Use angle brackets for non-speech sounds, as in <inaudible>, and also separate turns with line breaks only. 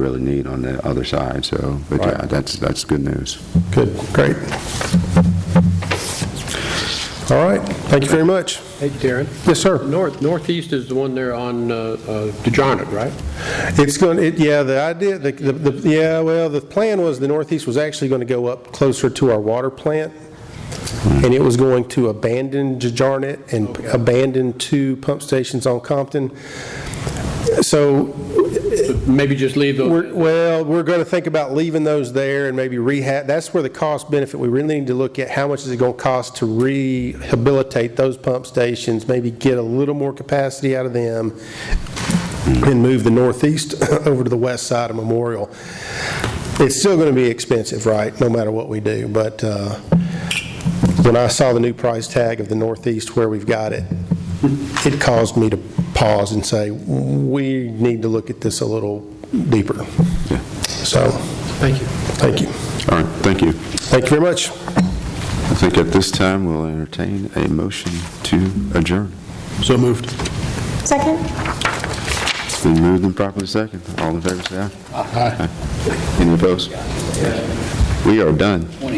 really need on the other side, so, but yeah, that's, that's good news.
Good, great. All right, thank you very much.
Hey, Darren,
Yes, sir.
north, northeast is the one there on uh, uh, DeJarnet, right?
It's going, it, yeah, the idea, the, the, the- yeah, well, the plan was the northeast was actually going to go up closer to our water plant, and it was going to abandon Jajarnet and abandon two pump stations on Compton. So
Maybe just leave
We're-
those,
Well, we're going to think about leaving those there and maybe rehab, that's where the cost benefit, we really need to look at how much is it going to cost to rehabilitate those pump stations, maybe get a little more capacity out of them, and move the northeast <laughs> over to the west side of Memorial. It's still going to be expensive, right, no matter what we do, but uh, when I saw the new price tag of the northeast where we've got it, it caused me to pause and say, we need to look at this a little deeper. So,
thank you.
thank you.
All right, thank you.
Thank you very much.
I think at this time, we'll entertain a motion to adjourn.
So moved.
Second?
It's been moved and properly second. All in favor, say aye. Aye. Any opposed? We are done.